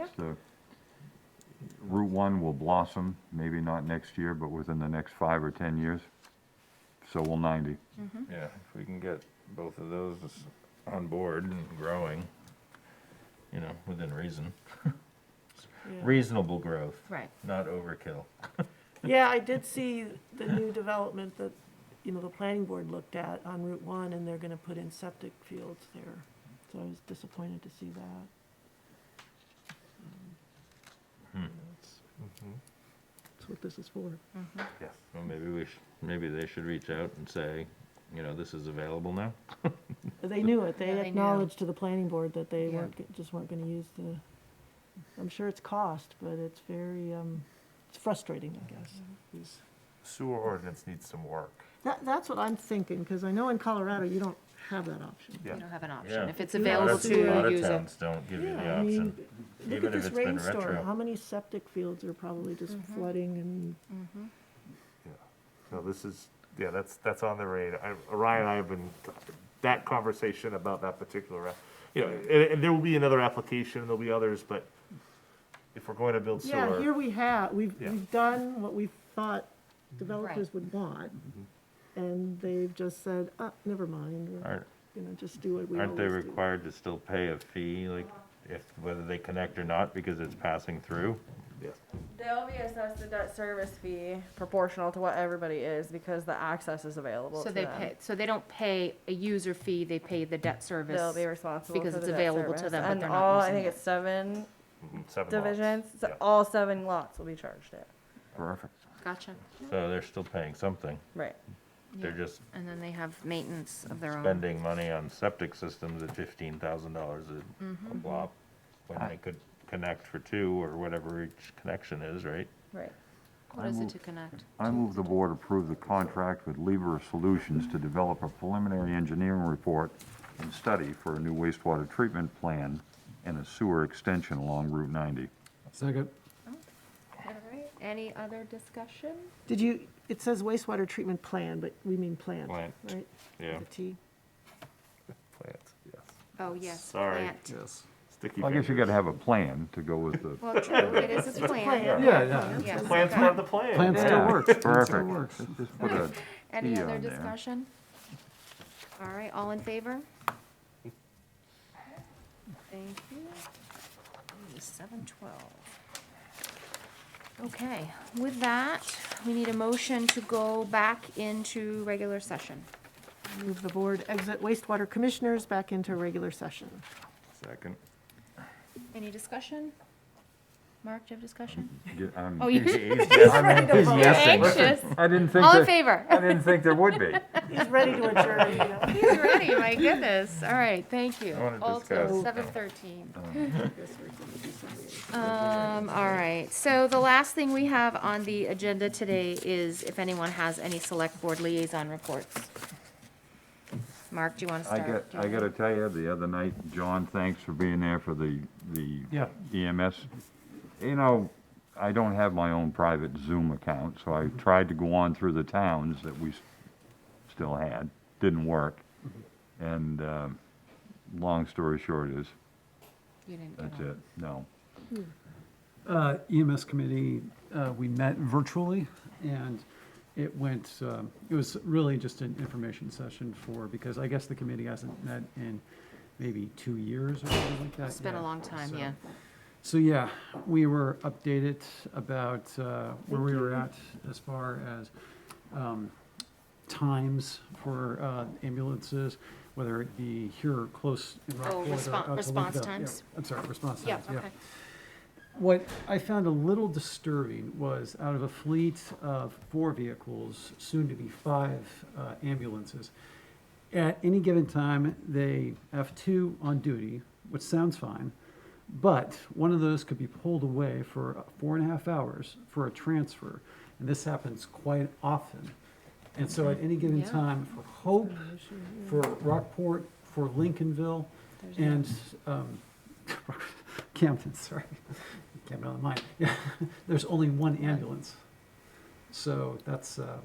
as the, Route One will blossom, maybe not next year, but within the next five or 10 years. So will 90. Yeah, if we can get both of those on board and growing, you know, within reason. Reasonable growth, Right. not overkill. Yeah, I did see the new development that, you know, the planning board looked at on Route One, and they're gonna put in septic fields there. So I was disappointed to see that. Hmm. That's what this is for. Mm-hmm. Well, maybe we should, maybe they should reach out and say, you know, this is available now. They knew it, Yeah, they they knew. acknowledged to the planning board that they Yeah. weren't, g- just weren't gonna use the, I'm sure it's cost, but it's very, um, it's frustrating, I guess. is- Sewer ordinance needs some work. That, that's what I'm thinking, because I know in Colorado, you don't have that option. Yeah. You don't have an option. Yeah. If it's Yeah, A lot available of- that's to a lot you, of use it. towns don't give you the Yeah, I mean, option. even Look at if this it's been rainstorm, retro. how many septic fields are probably just flooding and, Yeah. No, this is, yeah, that's, that's on the radar. I- Ryan and I have been, that conversation about that particular, app- you know, and, and there will be another application, there'll be others, but if we're going to build yeah, here sewer, we have, we've, Yeah. we've done what we thought developers would want. And they've just said, uh, never mind, we're Mm-hmm. Aren't- gonna just do what we always Aren't they do. required to still pay a fee, like, if, whether they connect or not, because it's passing through? yeah, They'll be assessed a debt service fee proportional to what everybody is because the access is available So to they them. pay, so they don't pay a user fee, they pay the debt service. They'll be responsible because for it's the debt available to service. them, but and they're not all I using think it. it's seven mhm, seven lots. divisions. So Yeah. all seven lots will be charged it. Perfect. Gotcha. So they're still paying something. Right. They're Yeah. just And then they have maintenance of their own. spending money on septic systems at fifteen thousand dollars a block, when they could connect for two or whatever each connection is, right? Right. What is it to connect? I move the board approve the contract with Libra Solutions to develop a preliminary engineering report and study for a new wastewater treatment plan and a sewer extension along Route 90. Second. All right, any other discussion? Did you, it says wastewater treatment plan, but we mean plant, Plant. right? Yeah. The T. Plants, yes. Oh, yes, Sorry. plant. Yes. Sticky Well, I guess you fingers. gotta have a plan to go with the, Well, true, it is a plan. Yeah, yeah. Yes, Plans okay. part of the plan. Plan still Yeah. works. Plan still Perfect. works. just put a Any Yeah, other on there. discussion? All right, all in favor? Thank you. Seven twelve. Okay, with that, we need a motion to go back into regular session. Move the board, exit wastewater commissioners back into regular session. Second. Any discussion? Mark, do you have discussion? get- I'm- Oh, you- He's anxious. I didn't think, All in there- favor? I didn't think there would be. He's ready to adjourn, you know. He's ready, my goodness. All right, thank you. I wanna All discuss. Seven thirteen. Um, all right, so the last thing we have on the agenda today is if anyone has any select board liaison reports. Mark, do you want to I start? got, Do you I wanna- gotta tell you, the other night, John, thanks for being there for the, the Yeah. EMS. You know, I don't have my own private Zoom account, so I tried to go on through the towns that we s- still had, didn't work. And, um, long story short is, You didn't get that's on. it, no. Uh, EMS committee, uh, we met virtually and it went, um, it was really just an information session for, because I guess the committee hasn't met in maybe two years or something like that. It's been a yet. long time, So- yeah. So, yeah, we were updated about uh, where we were at as far as um, times for uh, ambulances, whether it be here or close in Oh, Rockport or respon- out to response Lakeville. Yeah, times? I'm sorry, response Yeah, times, yeah. okay. What I found a little disturbing was out of a fleet of four vehicles, soon to be five uh, ambulances, at any given time, they have two on duty, which sounds fine, but one of those could be pulled away for four and a half hours for a transfer. And this happens quite often. And so at any given Yeah. time, for Hope, for Rockport, for Lincolnville, and um, Camden, sorry, Camden on the mind. Yeah, There's only one ambulance. So that's, uh,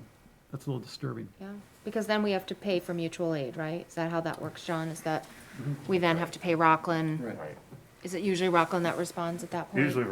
that's a little disturbing. Yeah, because then we have to pay for mutual aid, right? Is that how that works, John? Is that, we then have to pay Rockland? Right. Right. Is it usually Rockland that responds at that point? Usually